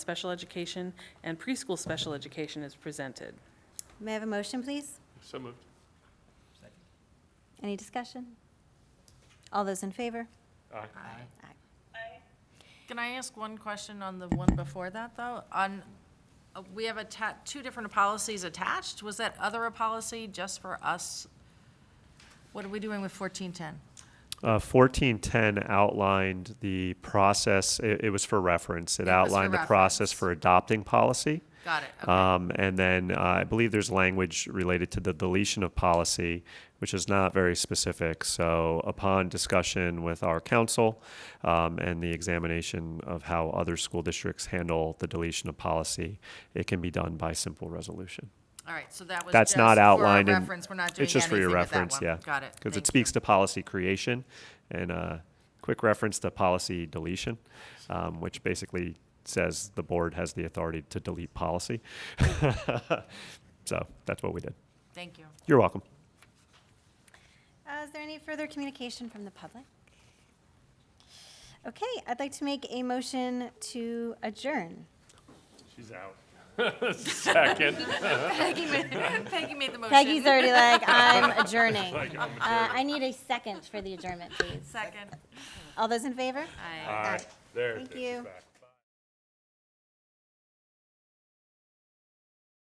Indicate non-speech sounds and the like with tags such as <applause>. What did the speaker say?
special education and preschool special education is presented. May I have a motion, please? So moved. Any discussion? All those in favor? Aye. Can I ask one question on the one before that, though? On, uh, we have atta two different policies attached. Was that other a policy just for us? What are we doing with fourteen ten? Uh, 1410 outlined the process, it, it was for reference. It It was for outlined the reference. process for adopting policy. Got it, okay. Um, and then uh, I believe there's language related to the deletion of policy, which is not very specific. So, upon discussion with our council um, and the examination of how other school districts handle the deletion of policy, it can be done by simple resolution. All right, so that was That's just not for our outlined in- reference. We're not doing It's just for your anything with that reference, one. yeah. Got it. Because Thank it you. speaks to policy creation and a quick reference to policy deletion, um, which basically says the board has the authority to delete policy. <laughs> So that's what we did. Thank you. You're welcome. Uh, Is there any further communication from the public? Okay, I'd like to make a motion to adjourn. She's out. Second. Peggy made, Peggy made the motion. Peggy's already <laughs> like, I'm adjourning. Uh, I need a second for the adjournment, please. Second. All those in favor? Aye. Aye. There, Thank there, she's you. back.